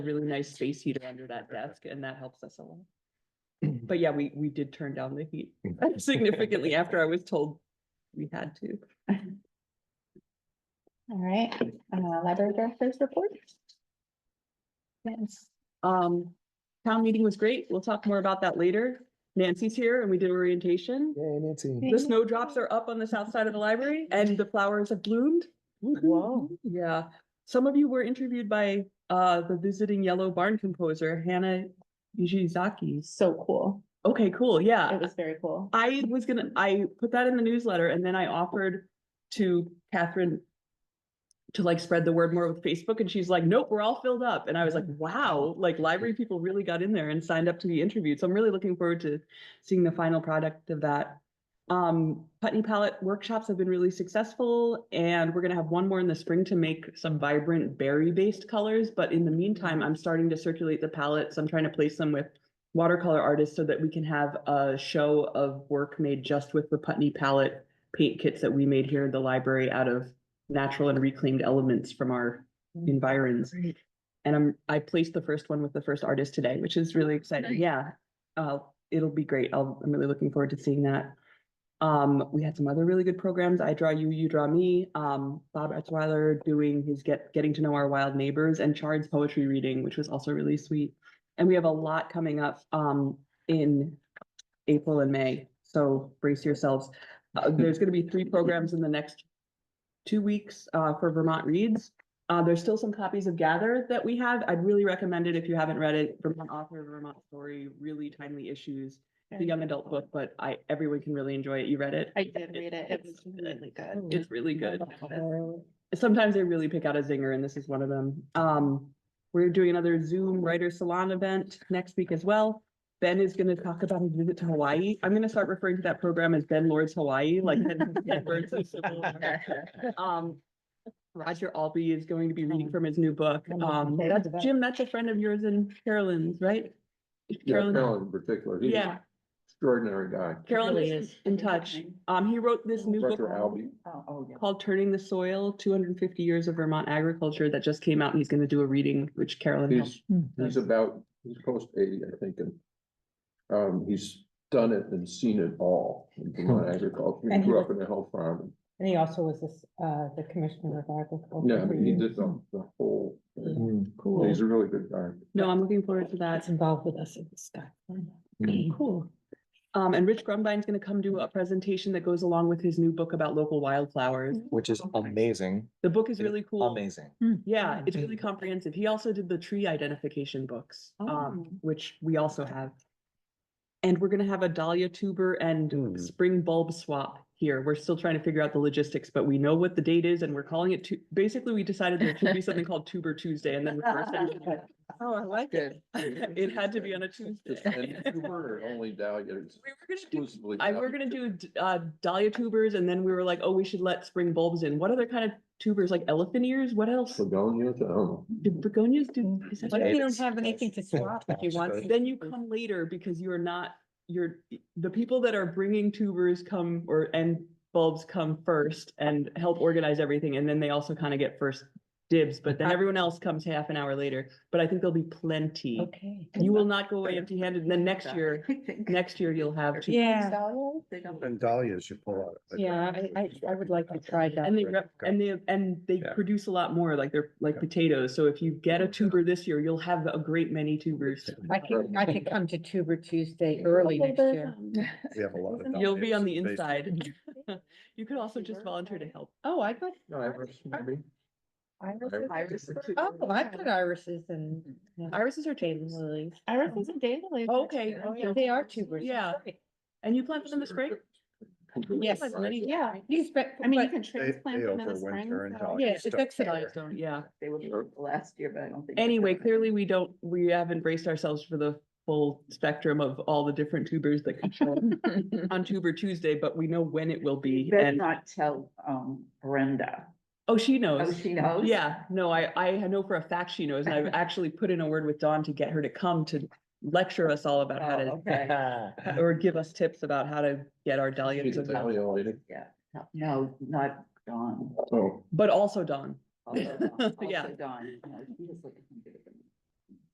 a really nice space heater under that desk and that helps us a lot. But yeah, we, we did turn down the heat significantly after I was told we had to. All right, uh, library director's report. Yes, Um, town meeting was great. We'll talk more about that later. Nancy's here and we did orientation. Yay, Nancy. The snowdrops are up on the south side of the library and the flowers have bloomed. Wow. Yeah, some of you were interviewed by uh the visiting Yellow Barn composer Hannah Yuzaki. so cool. Okay, cool. Yeah, It was very cool. I was gonna, I put that in the newsletter and then I offered to Catherine to like spread the word more with Facebook and she's like, nope, we're all filled up. And I was like, wow, like library people really got in there and signed up to be interviewed. So I'm really looking forward to seeing the final product of that. Um, Putney Palette workshops have been really successful and we're gonna have one more in the spring to make some vibrant berry-based colors. But in the meantime, I'm starting to circulate the palettes. I'm trying to place them with watercolor artists so that we can have a show of work made just with the Putney palette paint kits that we made here in the library out of natural and reclaimed elements from our environs. And I'm, I placed the first one with the first artist today, which is really exciting. Nice. Yeah. Uh, it'll be great. I'll, I'm really looking forward to seeing that. Um, we had some other really good programs. I draw you, you draw me. Um, Bob Etzweiler doing his get, getting to know our wild neighbors and Chard's poetry reading, which was also really sweet. And we have a lot coming up um in April and May, so brace yourselves. Uh, there's gonna be three programs in the next two weeks uh for Vermont Reads. Uh, there's still some copies of Gather that we have. I'd really recommend it if you haven't read it. Vermont author, Vermont story, really timely issues. It's a young adult book, but I, everyone can really enjoy it. You read it? I did read it. It was really good. It's really good sometimes they really pick out a zinger and this is one of them. Um, we're doing another Zoom writer salon event next week as well. Ben is gonna talk about his visit to Hawaii. I'm gonna start referring to that program as Ben Lord's Hawaii, like. Ben- Ben Burns of Civil War. Um, Roger Albee is going to be reading from his new book. Um, Oh, Okay, that's, that's- Jim, that's a friend of yours and Carolyn's, right? Yeah, Carolyn- Carolyn in particular. He's Yeah. Extraordinary guy. Carolyn really is is. in touch. Um, he wrote this new book. Oh, Dr. Albee. called Turning the Soil, two hundred and fifty years of Vermont agriculture that just came out and he's gonna do a reading, which Carolyn helped. He's, he's about, he's close to eighty, I think, and um, he's done it and seen it all in Vermont agriculture. He And he grew was- up in a hill farm. And he also was this, uh, the commissioner of Oh, agriculture. Yeah, I for mean, he years. did the, the whole, thing. Mm, Cool. he's a really good guy. No, I'm looking forward to that. That's involved with us in this guy. mm, Cool. Um, and Rich Grumbine's gonna come do a presentation that goes along with his new book about local wildflowers. which is amazing, The book is really cool. amazing. Yeah, it's really comprehensive. He also did the tree identification books, um, which we also have. And we're gonna have a dahlia tuber and Mm. spring bulb swap here. We're still trying to figure out the logistics, but we know what the date is and we're calling it tu- basically, we decided there should be something called Tuber Tuesday and then. we forced everyone to- Oh, I like it. It had to be on a Tuesday. And you were only dahlias, We were gonna do exclusively. I, we're gonna do d- uh dahlia tubers and then we were like, oh, we should let spring bulbs in. What other kind of tubers, like elephant ears? What else? Begonias, I don't know. Do begonias do? is that- What if you don't It's- have anything to swap if you want? Then you come later because you are not, you're, the people that are bringing tubers come or, and bulbs come first and help organize everything. And then they also kind of get first dibs, but Uh, then everyone else comes half an hour later. But I think there'll be plenty. Okay. You will not go away empty handed. And then next year, next year you'll have. two- Yeah, And dahlias you pull out. I think. yeah, I, I, I would like to try that. And they rep, Okay. and they, and they Yeah. produce a lot more, like they're like Yeah. potatoes, so if you get a tuber this year, you'll have a great many tubers. I could, I could come to Tuber Tuesday early next year. We have a lot of. You'll be on the dahlias based- inside. You could also just volunteer to help. Oh, I got. No, I was- maybe. Irises. Iris for Oh, I put irises and. Irises are tables. lilies. Iris is a daily. Okay, Oh, yeah, they are tubers. that's Yeah. right. And you plant them in the spring? Yes. Yeah, You spec, I mean, you but, can They, transplant they them in the overwinter spring. and so- dahlias. yeah, it's don't excellent. care. Yeah. They were broke last year, but I don't think. they're Anyway, gonna. clearly we don't, we haven't braced ourselves for the full spectrum of all the different tubers that could show up on Tuber Tuesday, but we know when it will be. Better And, not tell, um, Brenda. oh, she Oh, knows. she knows? Yeah, no, I, I know for a fact she knows, and I've actually put in a word with Dawn to get her to come to lecture us all about how Oh, to, okay. or give us tips about how to get our dahlias. She's a to bloom. dahlia lady. No, No, not Dawn. Oh, But also Dawn, Also Dawn, Yeah. also Dawn. No, she was looking